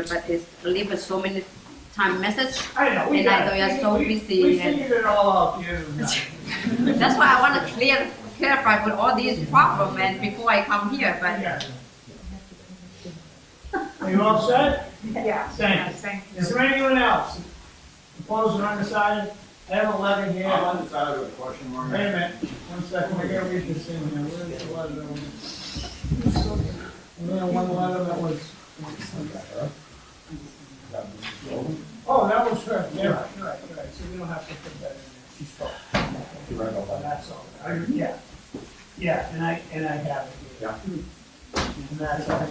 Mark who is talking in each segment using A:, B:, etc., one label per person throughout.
A: but it's leave so many time message.
B: I know, we
A: And I
B: got it.
A: know you're so
B: We- we-
A: busy
B: We
A: and-
B: figured it all out the other night.
A: That's why I want to clear, clarify with all these problem and before I come here, but
B: Yeah. Are you all set?
C: Yeah.
B: Thank
C: Thank
B: you. Is there anyone else? Opposed or undecided? I have eleven here.
D: I'm undecided with a question mark.
B: Wait a minute, one second, I gotta read this in here, where is the letter? that was- And then one letter that was. Oh, that was her, yeah, right, right, right, so we don't have to put that in there, she spoke. That's all, I, yeah, yeah, and I, and I have it here. And that's all.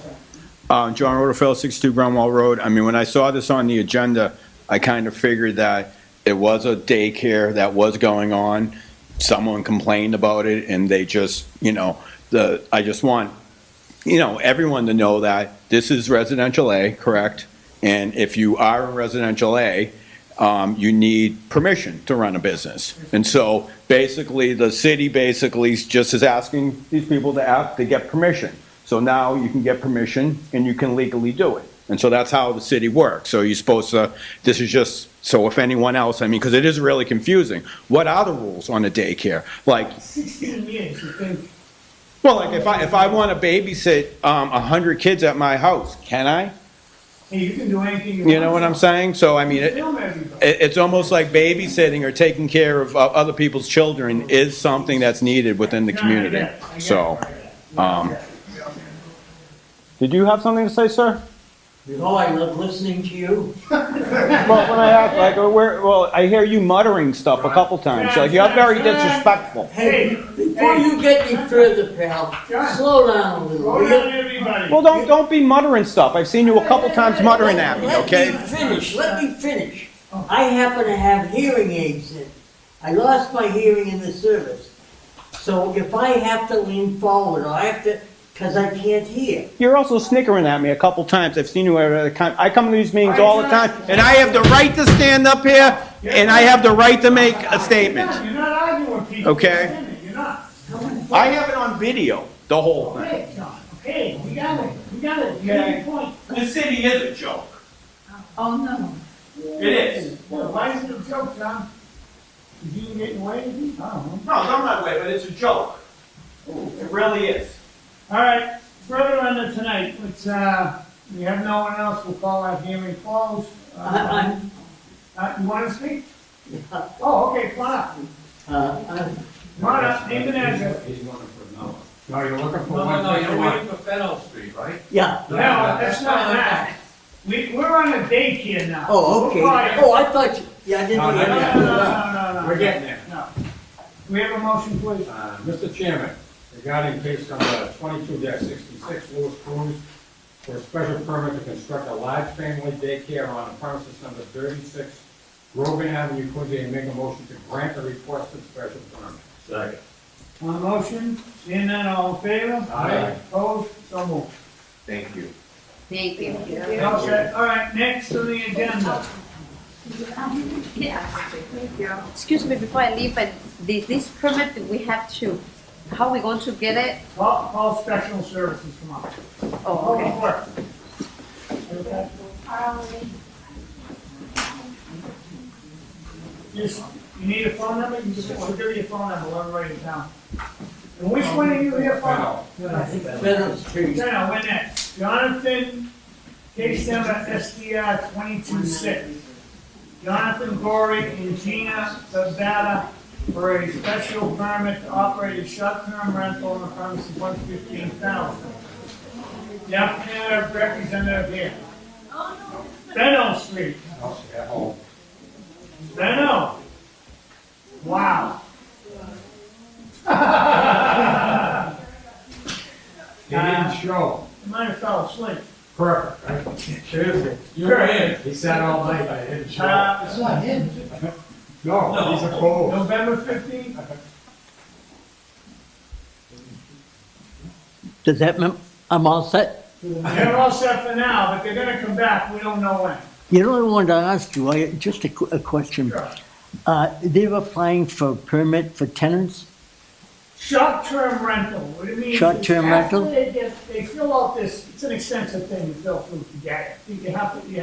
E: Uh, John Rutherford, 62 Grunwall Road. I mean, when I saw this on the agenda, I kind of figured that it was a daycare that was going on. Someone complained about it and they just, you know, the, I just want, you know, everyone to know that this is residential A, correct? And if you are in residential A, um, you need permission to run a business. And so basically, the city basically just is asking these people to ask, to get permission. So now you can get permission and you can legally do it. And so that's how the city works. So you're supposed to, this is just, so if anyone else, I mean, because it is really confusing. What are the rules on a daycare? Like,
B: Sixteen years, you think,
E: well, like if I, if I want to babysit, um, a hundred kids at my house, can I?
B: hey, you can do anything you want.
E: You know what I'm saying? So I mean, it,
B: Film everybody.
E: it, it's almost like babysitting or taking care of uh, other people's children is something that's needed within the
B: No, I
E: community.
B: get it, I get it,
E: So,
B: I get it.
E: um, did you have something to say, sir?
F: No, I love listening to you.
E: Well, when I asked, like, uh, where, well, I hear you muttering stuff a couple times, like, you're very disrespectful.
B: Hey,
F: Before
B: hey,
F: you get any further, pal, slow down a little.
B: slow
F: will
B: down
F: ya?
B: everybody.
E: Well, don't, don't be muttering stuff, I've seen you a couple times muttering at me,
F: Let-
E: okay?
F: Let me finish, let me finish.
B: Oh.
F: I happen to have hearing aids in. I lost my hearing in the service. So if I have to lean forward, or I have to, because I can't hear.
E: You're also snickering at me a couple times, I've seen you at other times, I come to these meetings all the time, and I have the right to stand up here, and I have the right to make a statement.
B: You're not arguing with people.
E: Okay.
B: You're not.
E: I have it on video, the whole thing.
B: Okay, John, okay, we got it, we got it, you got your point. Uh,
G: The city is a joke.
C: Oh, no.
G: It is.
B: Well, why is it a joke, John? Did you get away with it? I don't know.
G: No, not my way, but it's a joke. It really is.
B: All right, further on to tonight, let's, uh, we have no one else, we'll call our hearing closed. Uh,
F: I, I'm,
B: Uh, you wanna speak? Oh, okay, come on up,
F: uh, I'm,
B: come on up, name and address.
D: He's looking for Noah. No, you're looking for
H: No, no,
D: one
H: no,
D: fifty
H: you're
D: one.
H: waiting for Fennel Street, right?
F: yeah.
B: No, that's not that. We, we're on a daycare now.
F: Oh, okay.
B: We're quiet.
F: Oh, I thought you, yeah, I didn't
D: No,
B: No,
F: hear
B: no,
F: that.
B: no, no, no, no.
D: We're getting there.
B: No. We have a motion, please.
D: Uh, Mr. Chairman, regarding case number twenty-two sixty-six, Louis Cruz, for a special permit to construct a large family daycare on premises number thirty-six Grogan Avenue, Quincy, and make a motion to grant the requested special permit.
G: Second.
B: On the motion, seeing none, all in favor?
D: Aye.
B: Opposed, so moved.
G: Thank you.
A: thank you.
B: All set, all right, next on the agenda.
A: Yeah. Excuse me, before I leave, but this, this permit, we have to, how we going to get it?
B: Call, call special services, come on.
A: Oh,
B: Public
A: okay.
B: Works. Just, you need a phone number, you just, we'll give you a phone number, we'll write it down. And which one are you here for?
D: Fennel,
F: I think Fennel Street.
B: No, no, when next? Jonathan, case number SDR twenty-two six. Jonathan Gory and Gina Zabata for a special permit to operate a short-term rental on the premise of one fifteen thousand. The applicant representative here. Benno Street,
D: I'll stay at home.
B: Benno. Wow.
D: He didn't show.
B: Might have fell asleep.
D: Perfect, right? Seriously.
H: You were in.
D: He sat all night, I didn't show.
B: Uh, it's not him.
D: No, he's a cold.
B: November fifteenth?
F: Does that mean I'm all set?
B: They're all set for now, but they're gonna come back, we don't know when.
F: You know, what I wanted to ask you, I, just a, qu- a question.
B: Sure.
F: Uh, they're applying for a permit for tenants?
B: Short-term rental, what do you mean?
I: Short-term
B: After
I: rental?
B: They get- they fill out this, it's an extensive thing to fill through to get it. You have to, you